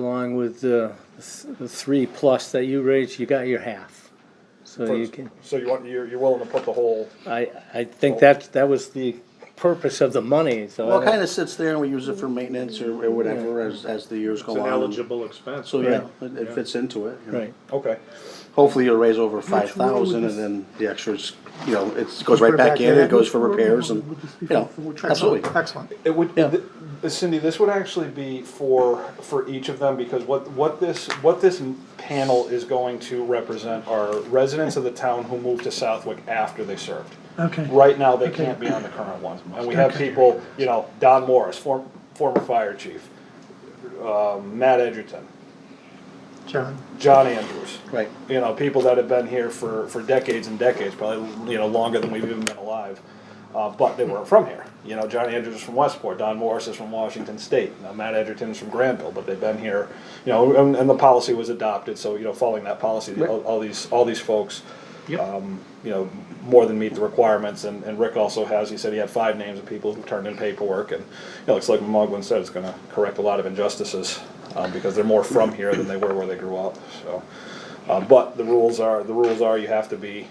Along with the th- the three plus that you raised, you got your half. So you can, So you want, you're, you're willing to put the whole, I, I think that, that was the purpose of the money, so. I Well, it don't- kind of sits there and we use it for maintenance or, or whatever as, as the years It's go an on. eligible expense. So, right? yeah, it- it fits into it. you know. Right, okay. Hopefully you'll raise over five thousand and then the extras, you know, it goes right back in, it goes for repairs and, you know, absolutely. Excellent. It would, Yeah. th- Cindy, this would actually be for, for each of them, because what, what this, what this panel is going to represent are residents of the town who moved to Southwick after they served. Okay. Right now, they can't be on the current one, and we have people, you know, Don Morris, form, former fire chief, uh, Matt Edgerton, John. John Andrews. Right. You know, people that have been here for, for decades and decades, probably, you know, longer than we've even been alive. Uh, but they weren't from here. You know, John Andrews is from Westport, Don Morris is from Washington State, now Matt Edgerton is from Granville, but they've been here, you know, and, and the policy was adopted, so, you know, following that policy, all, all these, all these folks, um, you know, more than meet the requirements, and, and Rick also has, he said he had five names of people who turned in paperwork, and, you know, it's like Mugwin said, it's gonna correct a lot of injustices, um, because they're more from here than they were where they grew up, so. Uh, but the rules are, the rules are you have to be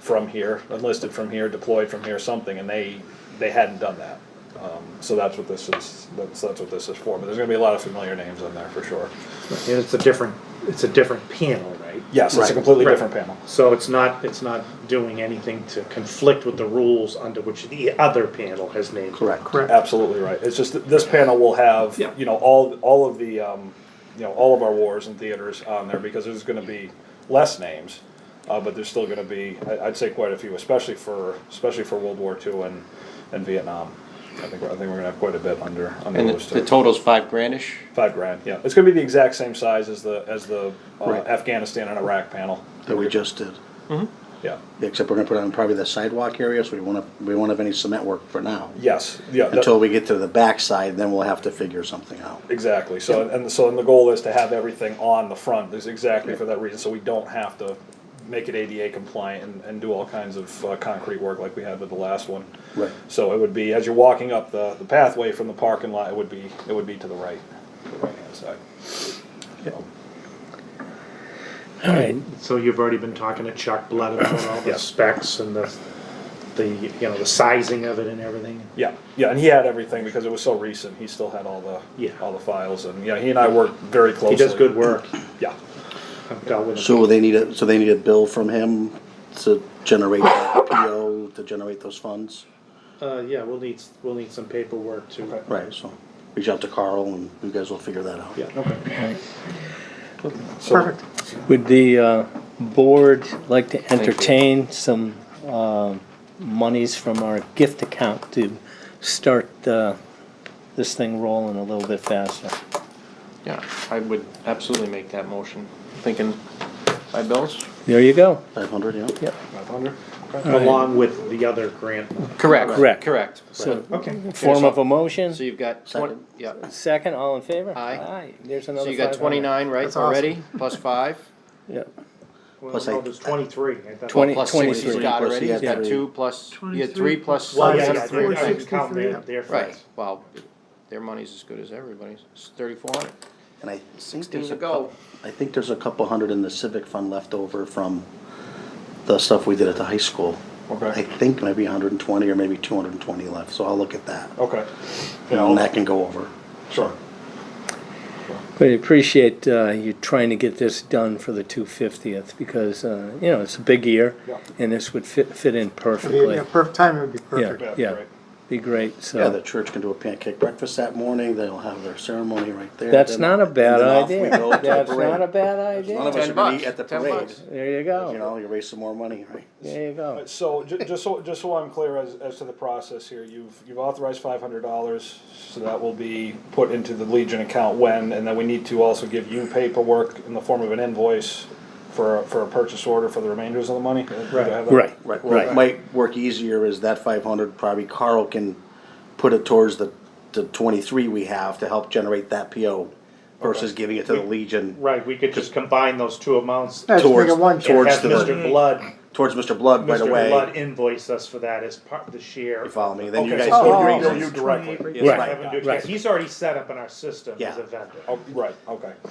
from here, enlisted from here, deployed from here, something, and they, they hadn't done that. Um, so that's what this is, that's, that's what this is for, but there's gonna be a lot of familiar names in there for sure. And it's a different, it's a different panel, right? Yes, it's a Right. completely Right. different panel. So it's not, it's not doing anything to conflict with the rules under which the other panel has named. Correct. Correct. Absolutely right. It's just that this panel will have, Yeah. you know, all, all of the, um, you know, all of our wars and theaters on there because there's gonna be less names. Uh, but there's still gonna be, I, I'd say quite a few, especially for, especially for World War II and, and Vietnam. I think, we're- I think we're gonna have quite a bit under, under And those the two. the total's five grandish? Five grand, yeah. It's gonna be the exact same size as the, as the uh, Right. Afghanistan and Iraq panel. That we just did. Yeah, Except we're gonna put on probably the sidewalk area, so we won't have, we won't have any cement work for now. yes, yeah. that- Until we get to the backside, then we'll have to figure something out. Exactly, so, and so, and the goal is to have everything on the front, is exactly for that reason, so we don't have to make it ADA compliant and, and do all kinds of uh, concrete work like we had with the last one. Right. So it would be, as you're walking up the, the pathway from the parking lot, it would be, it would be to the right, the right-hand side. all right, So you've already been talking to Chuck Blood about all the specs and the, the, you know, the sizing of it and everything. Yeah, yeah, and he had everything because it was so recent, he still had all the, Yeah. all the files, and, yeah, he and I worked very closely. He does good work. Yeah, I've dealt with him. So they need a, so they need a bill from him to generate that PO, to generate those funds? Uh, yeah, we'll need, we'll need some paperwork to. Okay. Right, so reach out to Carl and you guys will figure that out. Yeah. so, Perfect. would the, uh, board like to entertain some, um, monies from our gift account to start, uh, this thing rolling a little bit faster? Yeah, I would absolutely make that motion. Thinking five bills? There you go. Five hundred, yeah? Yep. five hundred? Along with the other grant. Correct. Correct. Correct. So, Okay. form of a motion, So you've got twenty, Second. yeah. second, all in favor? Aye. Aye, there's another So you got 500. twenty-nine, right, That's awesome. already? Plus five? Yep. Well, Plus no, eight. there's twenty-three. I thought- Twenty- Plus six he's 23. got Plus already, he he's had got three. two plus, you had 23 three plus. Well, Well, yeah, yeah, yeah, it's three, I didn't 463, count their, yeah. their Right, funds. well, their money's as good as everybody's, it's thirty-four hundred. And I think Sixteen there's to a go. couple, I think there's a couple hundred in the civic fund left over from the stuff we did at the high school. Okay. I think maybe hundred and twenty or maybe two hundred and twenty left, so I'll look at that. Okay. And that can go over. Sure. But I appreciate uh, you trying to get this done for the 250th because, uh, you know, it's a big year Yeah. and this would fit, fit in perfectly. Yeah, perfect timing would be perfect. Yeah, that'd be yeah, great. be great, Yeah, the so. church can do a pancake breakfast that morning, they'll have their ceremony right there. That's then- not a and then bad off we idea. go to the That's parade. not a bad None of idea. us Ten are gonna bucks, eat at the ten parade. bucks. There you You go, know, you raise some more money, right? there you go. So, ju- just so, just so I'm clear as, as to the process here, you've, you've authorized five hundred dollars, so that will be put into the Legion account when, and then we need to also give you paperwork in the form of an invoice for, a- for a purchase order for the remainders of the money? Do I have that? Right, Right, well, it right, might work easier is that five hundred, probably Carl can put it towards the, the twenty-three we have to help generate that PO versus giving it to the Legion Right, we could just combine those two amounts Yeah, and just make towards, it one check. towards have the, Mr. Blood, towards Mr. Blood right Mr. Blood away. invoice us for that as part of the share. You follow me, then you Okay, guys so Oh, can you'll- agree. you'll- you directly. Yes, Right. right. Have him do it. Right. He's already set up in our system as Yeah. a vendor. Oh, right, okay.